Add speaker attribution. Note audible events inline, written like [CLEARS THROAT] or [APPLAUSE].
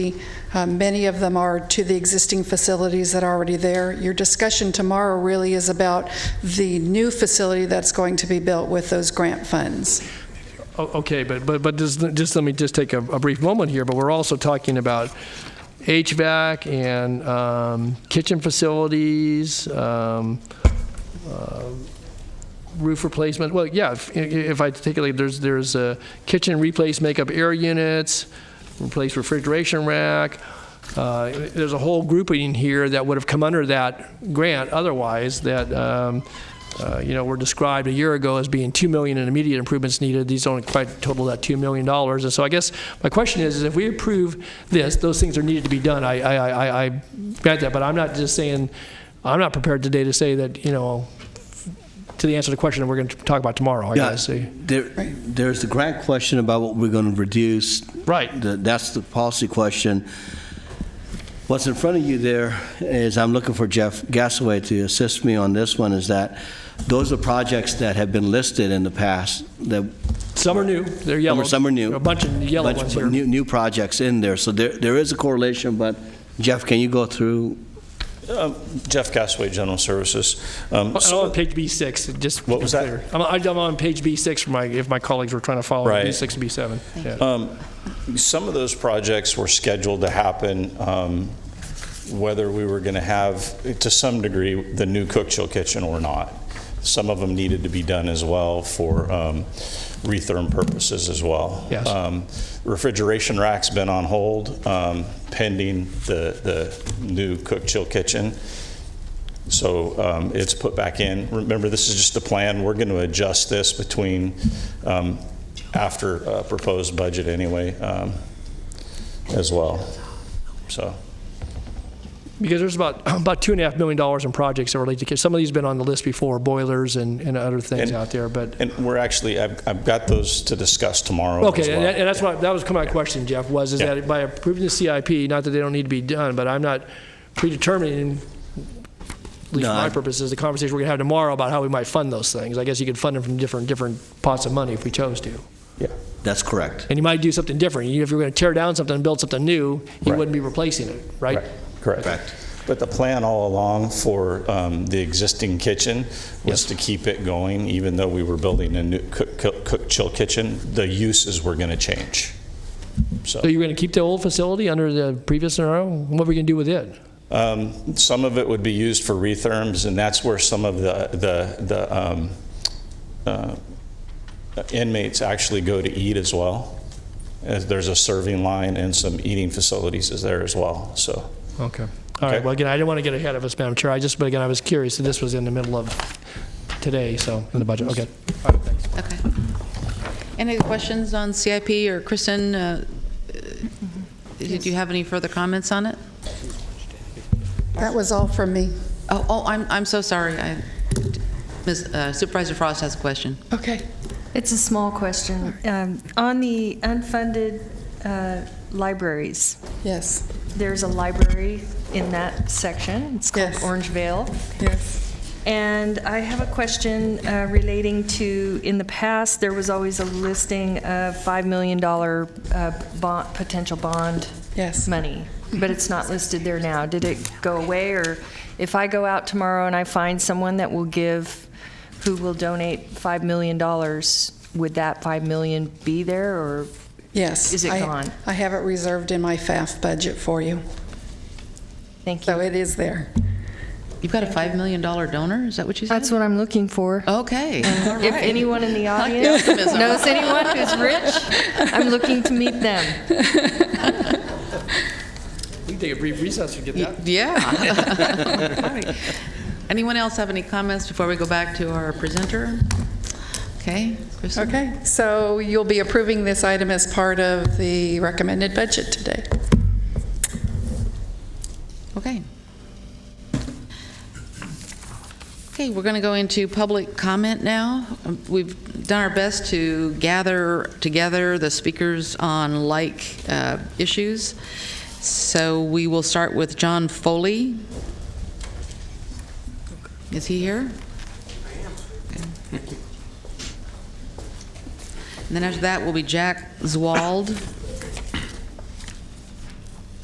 Speaker 1: Um, Many of them are to the existing facilities that are already there. Your discussion tomorrow really is about the new facility that's going to be built with those grant funds.
Speaker 2: O- Oh, Okay, but, but, but just, just let me just take a, a brief moment here, but we're also talking about HVAC and um, kitchen facilities, um, uh, roof replacement, well, yeah, if, if I take it, like, there's, there's uh, kitchen replace makeup air units, replace refrigeration rack, uh, there's a whole grouping here that would have come under that grant otherwise that, um, uh, you know, were described a year ago as being 2 million in immediate improvements needed. These don't quite total that 2 million dollars. And so I guess my question is, is if we approve this, those things are needed to be done. I, I, I- I, I grant that, but I'm not just saying, I'm not prepared today to say that, you know, to the answer to the question that we're going to talk about tomorrow, I
Speaker 3: Yeah,
Speaker 2: guess. See.
Speaker 3: Uh, there, there's the grant question about what we're going to reduce.
Speaker 2: Right.
Speaker 3: The- That's the policy question. What's in front of you there is, I'm looking for Jeff Gasaway to assist me on this one, is that those are projects that have been listed in the past, that
Speaker 2: Some are new, they're yellow.
Speaker 3: some are new.
Speaker 2: A bunch of yellow
Speaker 3: bunch
Speaker 2: ones
Speaker 3: of
Speaker 2: here.
Speaker 3: New, new projects in there, so there, there is a correlation, but Jeff, can you go through?
Speaker 4: Um, Jeff Gasway, General Services. Um,
Speaker 2: I'm on
Speaker 4: so-
Speaker 2: page B6, just.
Speaker 4: What was that?
Speaker 2: clear. I'm, I'm on page B6 for my, if my colleagues were trying to follow,
Speaker 4: Right. Uh,
Speaker 2: B6 and B7. Yeah.
Speaker 4: Some of those projects were scheduled to happen, um, whether we were going to have, to some degree, the new cook-chill kitchen or not. Some of them needed to be done as well for um, retherm purposes as well.
Speaker 2: Yes.
Speaker 4: Um, Refrigeration rack's been on hold um, pending the the new cook-chill kitchen. So um, it's put back in. Remember, this is just the plan. We're going to adjust this between, um, after uh, proposed budget anyway, um, as well. So,
Speaker 2: Because there's about, [CLEARS THROAT] about two and a half million dollars in projects that relate to, some of these have been on the list before, boilers and, and other things
Speaker 4: And-
Speaker 2: out there, but,
Speaker 4: and we're actually, I've I've got those to discuss tomorrow as
Speaker 2: okay, and that-
Speaker 4: well.
Speaker 2: and that's what, that was kind of my question, Jeff, was, is
Speaker 4: Yeah.
Speaker 2: that by approving the CIP, not that they don't need to be done, but I'm not predetermining, at least for
Speaker 3: No,
Speaker 2: my
Speaker 3: I-
Speaker 2: purposes, the conversation we're going to have tomorrow about how we might fund those things. I guess you could fund them from different, different pots of money if we chose to.
Speaker 4: Yeah.
Speaker 3: That's correct.
Speaker 2: And you might do something different. You- If you're going to tear down something and build something new, you
Speaker 4: Right.
Speaker 2: wouldn't be replacing it, right?
Speaker 4: Right, Correct.
Speaker 3: Correct.
Speaker 4: But the plan all along for um, the existing kitchen
Speaker 2: Yes.
Speaker 4: was to keep it going, even though we were building a new cook- cook- cook-chill kitchen, the uses were going to change.
Speaker 2: So you're going to keep the old facility under the previous scenario? What are we going to do with it?
Speaker 4: Um, Some of it would be used for retherms, and that's where some of the, the, the um, uh, inmates actually go to eat as well. As There's a serving line and some eating facilities is there as well, so.
Speaker 2: Okay. All right,
Speaker 4: Okay.
Speaker 2: well, again, I didn't want to get ahead of us, Madam Chair. I just, but again, I was curious, that this was in the middle of today, so, in the budget, okay.
Speaker 5: Okay. Any other questions on CIP or Kristen? uh, Did you have any further comments on it?
Speaker 1: That was all from me.
Speaker 5: Oh, oh, I'm, I'm so sorry. I- Ms. uh, Supervisor Frost has a question.
Speaker 1: Okay.
Speaker 6: It's a small question. Um, On the unfunded uh, libraries,
Speaker 1: Yes,
Speaker 6: there's a library in that section. It's called
Speaker 1: Yes.
Speaker 6: Orangevale.
Speaker 1: yes.
Speaker 6: And I have a question uh, relating to, in the past, there was always a listing of $5 million uh, bond, potential bond
Speaker 1: Yes.
Speaker 6: money, but it's not listed there now. Did it go away, or if I go out tomorrow and I find someone that will give, who will donate $5 million, would that 5 million be there, or?
Speaker 1: Yes.
Speaker 6: Is it
Speaker 1: I-
Speaker 6: gone?
Speaker 1: I have it reserved in my FAF budget for you,
Speaker 6: Thank
Speaker 1: so
Speaker 6: you.
Speaker 1: it is there.
Speaker 5: You've got a $5 million donor, is that what you said?
Speaker 6: That's what I'm looking for.
Speaker 5: Okay.
Speaker 6: If anyone in the audience
Speaker 5: optimism.
Speaker 6: knows anyone who's rich, I'm looking to meet them.
Speaker 2: We can take a brief recess to get that.
Speaker 5: [LAUGHS] Yeah. Anyone else have any comments before we go back to our presenter? Okay, Kristen?
Speaker 1: Okay, so you'll be approving this item as part of the recommended budget today.
Speaker 5: Okay. Okay, we're going to go into public comment now. Um, We've done our best to gather together the speakers on like uh, issues. So we will start with John Foley. Is he here? Okay. And then after that will be Jack Zwald.